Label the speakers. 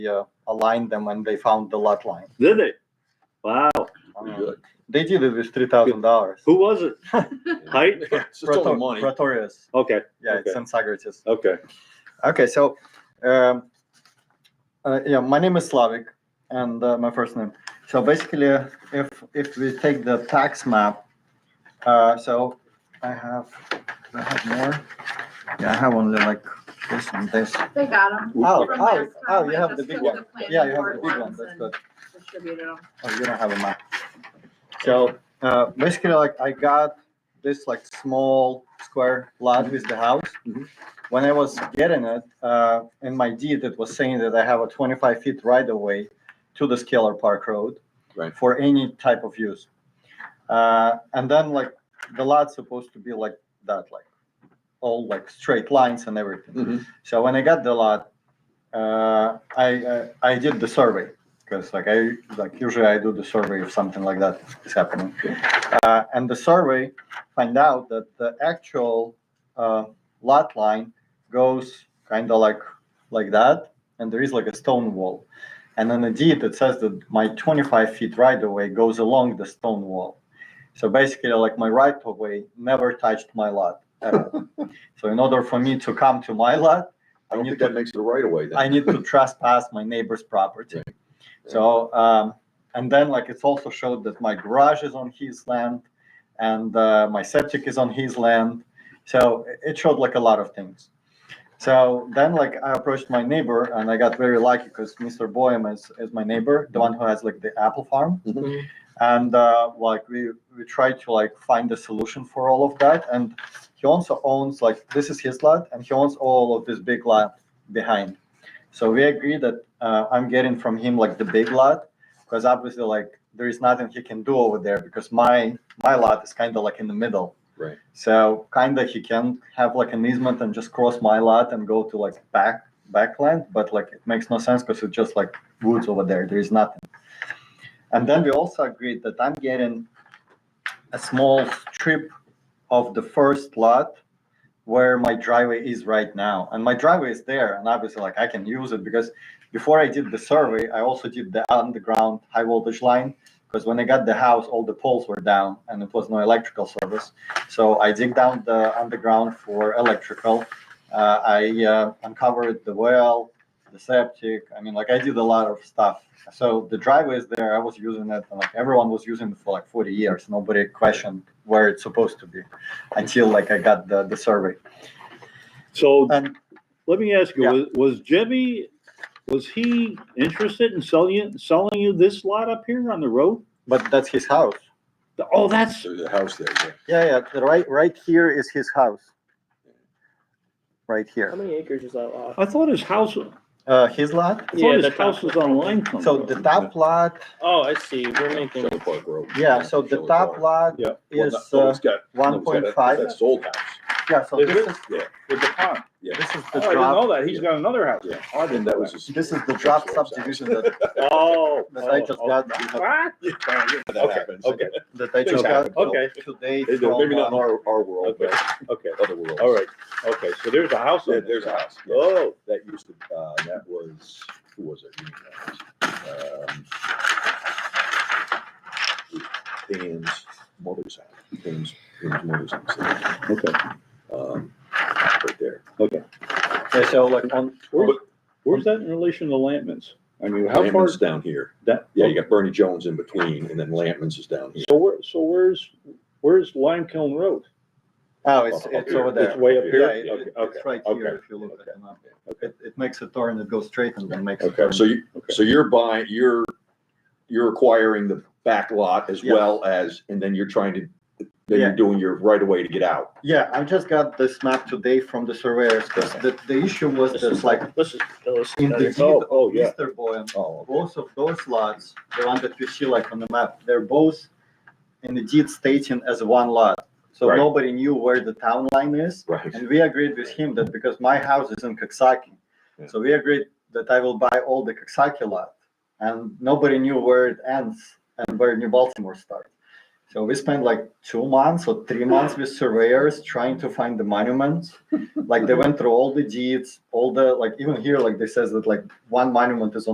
Speaker 1: uh, aligned them when they found the lot line.
Speaker 2: Did they? Wow.
Speaker 1: Um,
Speaker 3: Good.
Speaker 1: They did it with three thousand dollars.
Speaker 2: Who was it? Height?
Speaker 3: It's just only money.
Speaker 1: Pretorius.
Speaker 2: Okay.
Speaker 1: Yeah, it's
Speaker 2: Okay.
Speaker 1: in Socrates.
Speaker 2: Okay.
Speaker 1: Okay, so um, uh, yeah, my name is Slavic, and uh, my first name. So basically, uh, if if we take the tax map, uh, so I have do I have more. Yeah, I have only like this and this.
Speaker 4: They got them.
Speaker 1: Oh,
Speaker 4: From last
Speaker 1: oh,
Speaker 4: time,
Speaker 1: oh! You
Speaker 4: I
Speaker 1: have the
Speaker 4: just
Speaker 1: big
Speaker 4: took
Speaker 1: one.
Speaker 4: the planning
Speaker 1: Yeah, you have the
Speaker 4: board
Speaker 1: big one.
Speaker 4: ones
Speaker 1: That's
Speaker 4: and
Speaker 1: good.
Speaker 4: Distributed them.
Speaker 1: Oh, you don't have a map. So uh, basically, like I got this like small square lot with the house.
Speaker 2: Mhm.
Speaker 1: When I was getting it, uh, in my deed, it was saying that I have a 25 feet right of way to the Scalar Park Road
Speaker 3: Right.
Speaker 1: for any type of use. Uh, and then like the lot's supposed to be like that, like all like straight lines and everything.
Speaker 3: Mhm.
Speaker 1: So when I got the lot, uh, I uh, I did the survey because like I like usually I do the survey if something like that is happening, uh, and the survey find out that the actual uh, lot line goes kind of like like that, and there is like a stone wall, and then the deed it says that my 25 feet right away goes along the stone wall, so basically like my right of way never touched my lot. at all. so in order for me to come to my lot,
Speaker 3: I don't
Speaker 1: you
Speaker 3: think
Speaker 1: took-
Speaker 3: that makes it a right away then.
Speaker 1: I need to trespass my neighbor's property. So, um, and then like it's also showed that my garage is on his land and, uh, my septic is on his land. So it- it showed like a lot of things. So then like I approached my neighbor and I got very lucky because Mr. Boehm is, is my neighbor, the one who has like the apple farm.
Speaker 3: Mhm.
Speaker 1: And, uh, like we, we tried to like find a solution for all of that. And he also owns like, this is his lot and he owns all of this big lot behind. So we agree that uh, I'm getting from him like the big lot because obviously like there is nothing he can do over there because my my lot is kind of like in the middle.
Speaker 3: Right.
Speaker 1: So kind of he can have like an easement and just cross my lot and go to like back backland, but like it makes no sense because it's just like woods over there. There is nothing. And then we also agreed that I'm getting a small strip of the first lot where my driveway is right now. And my driveway is there, and obviously, like I can use it because before I did the survey, I also did the underground high voltage line. Because when I got the house, all the poles were down and it was no electrical service. So I dig down the underground for electrical. Uh, I uh, uncovered the well, the septic. I mean, like I did a lot of stuff. So the driveway is there. I was using it, and like everyone was using it for like 40 years. Nobody questioned where it's supposed to be until like I got the, the survey.
Speaker 2: So
Speaker 1: And
Speaker 2: let me ask you,
Speaker 1: Yeah.
Speaker 2: was, was Jimmy, was he interested in selling you, selling you this lot up here on the road?
Speaker 1: but that's his house.
Speaker 2: Oh, that's,
Speaker 3: There's a house there, yeah.
Speaker 1: Yeah, yeah. the Right, right here is his house. Right
Speaker 5: How
Speaker 1: here.
Speaker 5: many acres is that lot?
Speaker 2: I thought his house, I
Speaker 1: Uh, his lot.
Speaker 5: Yeah,
Speaker 2: thought his
Speaker 5: the top.
Speaker 2: house was on Lime Company.
Speaker 1: So the top lot.
Speaker 5: Oh, I see. We're making,
Speaker 3: Shelby Park Road.
Speaker 1: Yeah. So the
Speaker 3: Shelby
Speaker 1: top
Speaker 3: Park.
Speaker 1: lot
Speaker 2: Yeah.
Speaker 3: Well,
Speaker 1: is
Speaker 3: no, no,
Speaker 1: uh,
Speaker 3: it's got- no,
Speaker 1: one
Speaker 3: it's got that-
Speaker 1: point five.
Speaker 3: That's old house.
Speaker 1: Yeah. So
Speaker 2: Is
Speaker 1: this is
Speaker 3: Yeah.
Speaker 2: With the pond.
Speaker 1: this is
Speaker 2: Oh,
Speaker 1: the
Speaker 2: I didn't know
Speaker 1: draft.
Speaker 2: that. He's got another house.
Speaker 3: Yeah.
Speaker 2: Oh, I didn't
Speaker 3: That
Speaker 2: know
Speaker 3: was
Speaker 2: that.
Speaker 3: his.
Speaker 1: This is the
Speaker 3: that's
Speaker 1: draft
Speaker 3: the old house.
Speaker 1: subdivision that,
Speaker 2: Oh.
Speaker 1: that I just
Speaker 2: oh,
Speaker 1: got.
Speaker 2: oh. What?
Speaker 3: That
Speaker 2: Okay,
Speaker 3: happens.
Speaker 2: okay.
Speaker 1: That I just got.
Speaker 2: Okay.
Speaker 1: Today.
Speaker 2: They do.
Speaker 1: from,
Speaker 3: Maybe not in
Speaker 1: uh,
Speaker 3: our, our world,
Speaker 2: Okay,
Speaker 3: but
Speaker 2: okay.
Speaker 3: other worlds.
Speaker 2: All right. Okay, so there's a house on
Speaker 3: Yeah,
Speaker 2: it.
Speaker 3: there's a house. yeah.
Speaker 2: Oh,
Speaker 3: That used to, uh, that was, who was it? Um, Dan's mother's house, Dan's, Dan's mother's house,
Speaker 2: okay.
Speaker 3: um, right there.
Speaker 1: Yeah, so like on.
Speaker 2: Where's, where's that in relation to Lampman's? I mean, how far
Speaker 3: Lampman's
Speaker 2: is
Speaker 3: down here.
Speaker 2: that?
Speaker 3: Yeah, you got Bernie Jones in between and then Lampman's is down here.
Speaker 2: So where, so where's, where's Lime Kiln Road?
Speaker 1: Oh, it's it's over there.
Speaker 2: It's way up
Speaker 1: Yeah,
Speaker 2: here?
Speaker 1: it-
Speaker 2: Okay,
Speaker 1: it-
Speaker 2: okay,
Speaker 1: it's right
Speaker 2: okay.
Speaker 1: here if you look at the map. It, it makes a turn, it goes straight and then makes. a
Speaker 3: Okay,
Speaker 1: turn.
Speaker 3: so you,
Speaker 2: Okay.
Speaker 3: so you're buying, you're, you're acquiring the back lot as
Speaker 1: Yes.
Speaker 3: well as, and then you're trying to, then
Speaker 1: Yeah.
Speaker 3: you're doing your right away to get out.
Speaker 1: Yeah, I just got this map today from the surveyors, because the, the issue was
Speaker 5: this
Speaker 1: that
Speaker 5: is
Speaker 1: like
Speaker 5: like, this is, this
Speaker 1: in the
Speaker 5: is,
Speaker 1: deed
Speaker 2: Oh, oh,
Speaker 1: of
Speaker 2: yeah.
Speaker 1: Mr. Boehm,
Speaker 3: Oh,
Speaker 1: both of those lots, the one that you see like on the map, they're both in the deed stating as one lot. So
Speaker 3: Right.
Speaker 1: nobody knew where the town line is,
Speaker 3: Right.
Speaker 1: and we agreed with him that because my house is in Coxsackie,
Speaker 3: Yeah.
Speaker 1: so we agreed that I will buy all the Coxsackie lot, and nobody knew where it ends and where New Baltimore starts. So we spent like two months or three months with surveyors trying to find the monuments. Like they went through all the deeds, all the like even here, like they says that like one monument is on